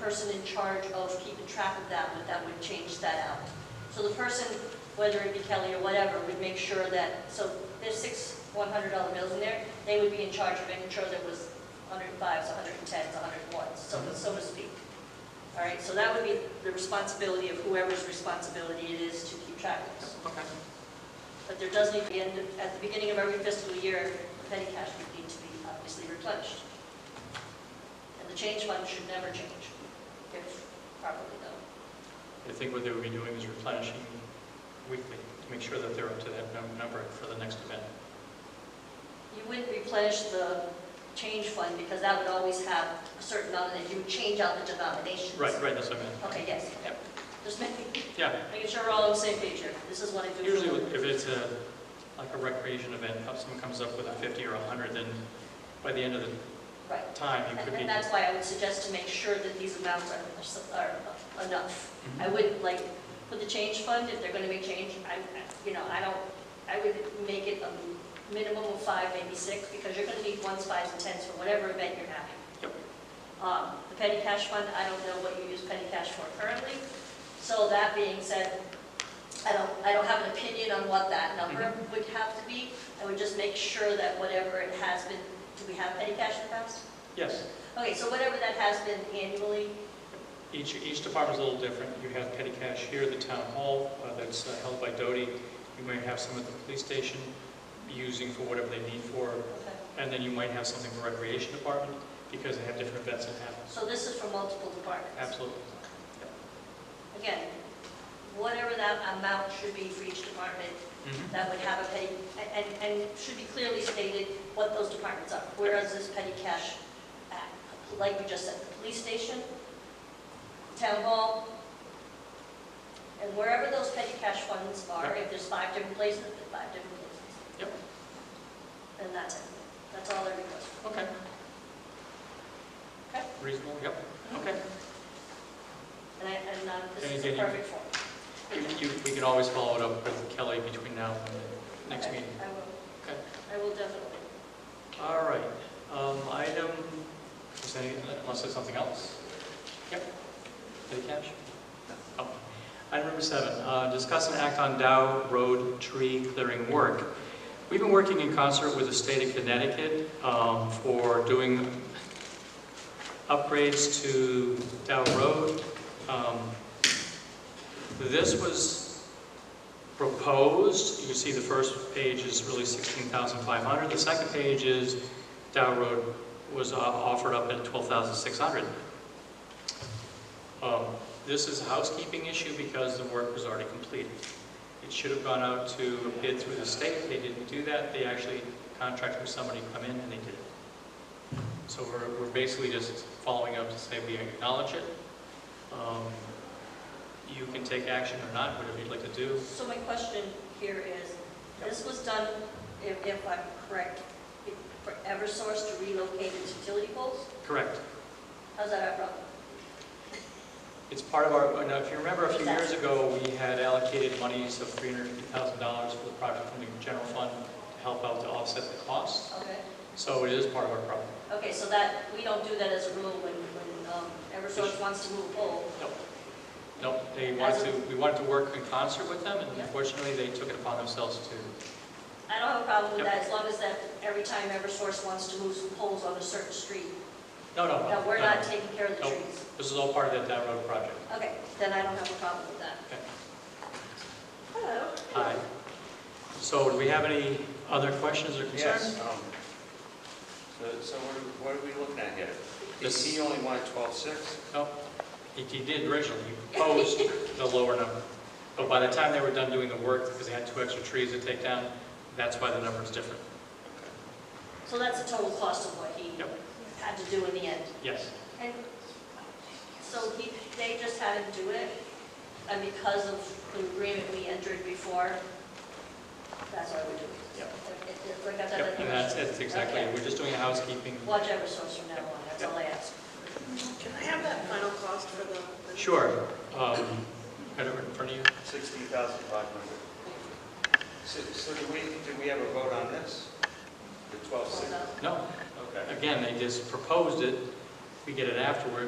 person in charge of keeping track of that, would that would change that out. So the person, whether it be Kelly or whatever, would make sure that, so there's six $100 bills in there, they would be in charge of making sure there was 105s, 110s, 101s, so so to speak. All right, so that would be the responsibility of whoever's responsibility it is to keep track of this. Okay. But there does need to be, and at the beginning of every fiscal year, the petty cash would need to be obviously replenished. And the change fund should never change, if properly done. I think what they would be doing is replenishing weekly to make sure that they're up to that num- number for the next event. You wouldn't replenish the change fund because that would always have a certain amount, and you would change out the denominations. Right, right, that's what I meant. Okay, yes. Yep. Just making, Yeah, making sure we're all on the same page here. This is what I do. usually with- if it's a, like a recreation event, if someone comes up with a 50 or a 100, then by the end of the Right. time, you And could be, and that's why I would suggest to make sure that these amounts are, are enough. Mm-hmm. I wouldn't like, for the change fund, if they're gonna make change, I, you know, I don't, I would make it a minimum of five, maybe six, because you're gonna need ones, fives, and tens for whatever event you're having. Yep. Um, the petty cash fund, I don't know what you use petty cash for currently. So that being said, I don't, I don't have an opinion on what that number Mm-hmm. would have to be. I would just make sure that whatever it has been, do we have petty cash in the past? yes, Okay, so whatever that has been annually, each, each department's a little different. You have petty cash here at the town hall, uh, that's uh, held by Doty. You might have some at the police station, using for whatever they need for, and then you might have something for recreation department, because they have different events that happen. so this is for multiple departments. Absolutely. Again, whatever that amount should be for each department, Mhm. that would have a petty, and, and should be clearly stated what those departments are. Where is this petty cash at? Like we just said, the police station, town hall, and wherever those petty cash funds are, if there's five different places, then five different places. Yep. And that's it. That's all I request. Okay. Okay. Reasonable, yep, okay. And I, and um, this is Can the I get you- perfect form. You- you- We can always follow it up with Kelly between now and the next Okay, meeting. I will. Okay. I will definitely. All right, um, item, is there any- unless there's something else? Yep. Petty cash? Oh. Item number seven, uh, discuss and act on Dow Road tree clearing work. We've been working in concert with the state of Connecticut um, for doing upgrades to Dow Road. Um, This was proposed, you can see the first page is really 16,500. The second page is Dow Road was uh, offered up at 12,600. Um, This is a housekeeping issue because the work was already completed. It should have gone out to a bid through the state, they didn't do that, they actually contracted with somebody to come in and they did it. So we're, we're basically just following up to say we acknowledge it. Um, You can take action or not, whatever you'd like to do. So my question here is, this was done, if, if I'm correct, for Eversource to relocate its utility poles? Correct. How's that our problem? It's part of our, now, if you remember, a few years ago, we had allocated monies of $350,000 for the project from the general fund to help out to offset the cost. Okay, So it is part of our problem. okay, so that, we don't do that as a rule when, when um, Eversource wants to move a pole. Nope. Nope, they wanted to, we wanted to work in concert with them, and Yeah. unfortunately, they took it upon themselves to, I don't have a problem with Yep. that, as long as that, every time Eversource wants to move some poles on a certain street, no, no, no. that we're no, not no. taking care of the Nope. trees. This is all part of that Dow Road project. Okay, then I don't have a problem with that. Okay. Hello. Aye. So do we have any other questions or concerns? Yes. um, So, so what are- what are we looking at here? This- He only wanted twelve-six? No, he, he did originally, he proposed the lower number. But by the time they were done doing the work, because they had two extra trees to take down, that's why the number is different. So that's the total cost of what he Yep. had to do in the end. Yes, And so he, they just had him do it, and because of the agreement we entered before, that's why we're doing it. Yep. It- it- it's like I said, Yep, and that's, that's exactly, it. Okay. we're just doing a housekeeping. Watch Eversource from now on, that's all I ask. Can I have that final cost for the? the- Sure. Um, Right over in front of you. Sixty thousand five hundred. So, so do we, do we have a vote on this? The twelve-six? Well done. No, Okay. again, they just proposed it, we get it afterwards,